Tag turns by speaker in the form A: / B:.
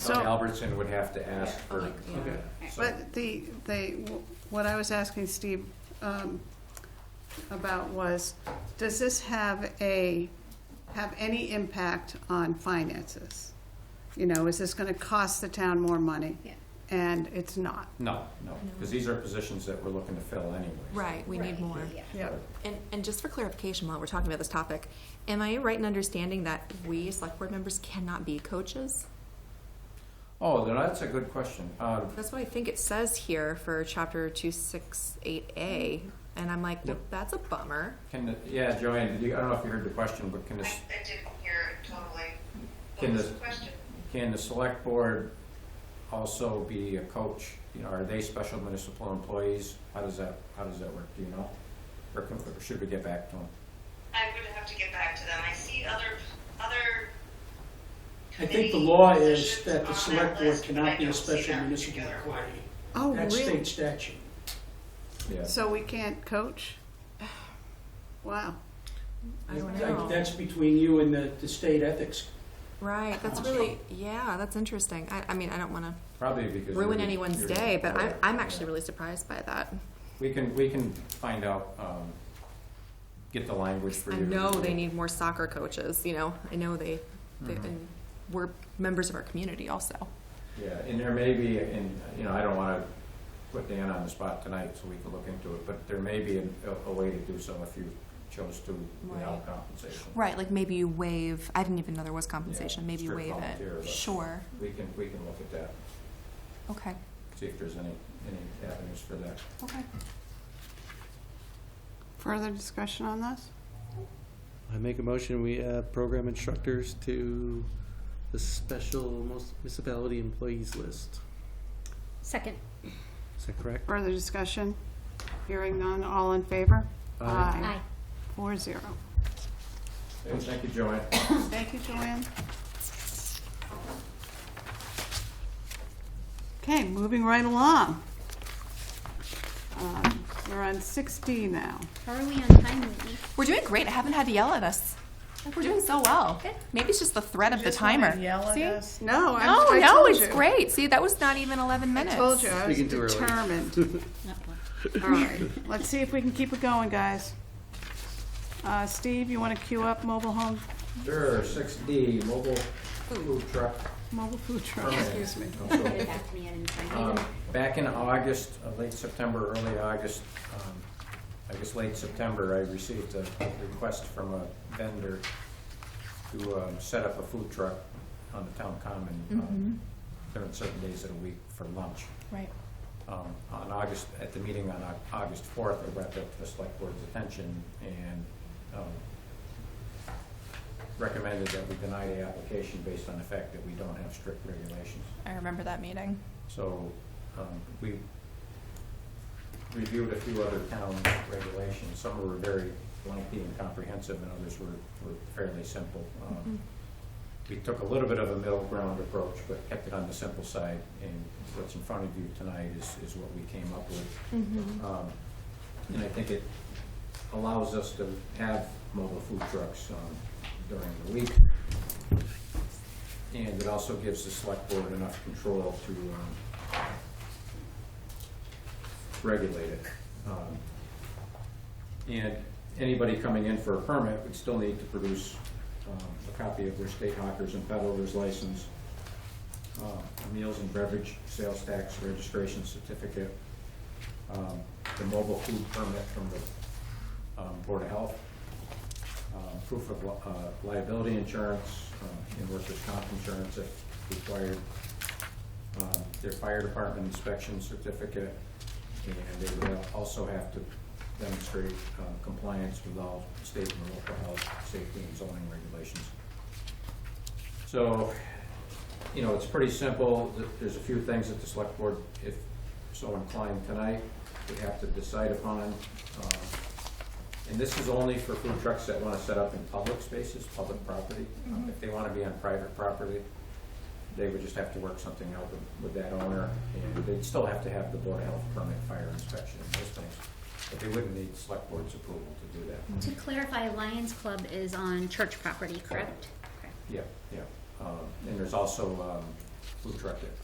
A: So-
B: Tommy Albertson would have to ask for.
C: Okay.
B: so-
A: But the, they, what I was asking Steve um, about was, does this have a, have any impact on finances? You know, is this gonna cost the town more money?
D: Yeah.
A: And it's not.
B: No, no, because these are positions that we're looking to fill anyways.
C: Mm-hmm. Right, we need more.
D: Yeah.
A: Yeah.
C: And, and just for clarification, while we're talking about this topic, am I right in understanding that we, select board members, cannot be coaches?
B: Oh, then that's a good question. Uh,
C: That's what I think it says here for chapter two six eight A, and I'm like, well, that's a bummer.
B: Can, the- yeah, Joanne, you- I don't know if you heard the question, but can
E: I,
B: the, s-
E: I didn't hear it totally.
B: Can
E: What was
B: the-
E: the question?
B: can the select board also be a coach? You know, are they special municipal employees? How does that, how does that work? Do you know? Or can- or should we get back to them?
E: I would have to get back to them. I see other, other
F: I think the
E: committee
F: law is
E: positions
F: that
E: on
F: the select board
E: list, but I
F: cannot be a
E: don't see
F: special
E: that
F: municipal
E: particular one.
F: employee.
A: Oh,
F: That's
A: really?
F: state statute.
B: Yeah.
A: So we can't coach? Wow.
C: I don't
F: That-
C: know.
F: That's between you and the, the state ethics.
C: Right, that's really, yeah, that's interesting. I, I mean, I don't wanna
B: Probably because.
C: ruin
B: you're-
C: anyone's
B: you're-
C: day, but I'm,
B: yeah,
C: I'm
B: yeah.
C: actually really surprised by that.
B: We can, we can find out, um, get the language for
C: I
B: you.
C: know they need more soccer coaches, you know, I know they, they,
B: Mhm.
C: and we're members of our community also.
B: Yeah, and there may be, and, you know, I don't wanna put Dan on the spot tonight, so we can look into it, but there may be a, a way to do so if you chose to without
C: Right.
B: compensation.
C: Right, like maybe you waive, I didn't even know there was compensation,
B: Yeah,
C: maybe you
B: strict
C: waive
B: volunteer,
C: it.
B: but-
C: Sure,
B: We can, we can look at that,
C: okay,
B: see if there's any, any avenues for that.
C: okay.
A: Further discussion on this?
G: I make a motion, we add program instructors to the special mus- municipality employees list.
D: Second.
G: Is that correct?
A: Further discussion? Hearing none, all in favor?
G: Aye.
A: Four zero.
B: Okay, Oh, Thank you, Joanne.
A: Thank you, Joanne. Okay, moving right along. Um, We're on 60 now.
D: How are we on time, Whitney?
C: We're doing great, I haven't had to yell at us. We're doing so well.
D: Good.
C: Maybe it's just the threat of the timer. See?
A: No, I
C: No,
A: I
C: no,
A: told
C: it's
A: you.
C: great. See, that was not even 11
A: I
C: minutes.
A: told you, I was
G: Speaking too early.
A: determined.
D: Not one.
A: All right, let's see if we can keep it going, guys. Uh, Steve, you want to queue up mobile home,
B: Sure, six D, mobile food truck
A: mobile food truck,
B: permit.
A: Oh,
B: Oh,
A: excuse me.
D: Put it back to me, I didn't sign
B: Um,
D: it.
B: Back in August, uh, late September, early August, um, I guess late September, I received a request from a vendor to um, set up a food truck on the town common um, during certain days of the week for lunch.
C: Right.
B: Um, On August, at the meeting on Au- August 4th, I brought that to the select board's attention and um, recommended that we deny the application based on the fact that we don't have strict regulations.
C: I remember that meeting.
B: So, um, we reviewed a few other town regulations. Some were very lengthy and comprehensive, and others were, were fairly simple. Um, We took a little bit of a middle ground approach, but kept it on the simple side, and what's in front of you tonight is, is what we came up with. Um, And I think it allows us to have mobile food trucks, um, during the week. And it also gives the select board enough control to, um, regulate it. Um, And anybody coming in for a permit would still need to produce, um, a copy of their state hawkers and peddlers license, uh, meals and beverage, sales tax, registration certificate, um, the mobile food permit from the um, Board of Health, um, proof of li- uh, liability insurance, uh, and workers' comp insurance if required, um, their fire department inspection certificate, and they would also have to demonstrate uh, compliance with all state and local health, safety, and zoning regulations. So, you know, it's pretty simple. Th- There's a few things that the select board, if so inclined tonight, would have to decide upon. Um, And this is only for food trucks that want to set up in public spaces, public property. Um, If they want to be on private property, they would just have to work something out with, with that owner. And they'd still have to have the board of health permit, fire inspection, and those things. But they wouldn't need select board's approval to do that.
D: To clarify, Lions Club is on church property, correct? Correct.
B: Yeah, yeah. Um, And there's also um, food truck there.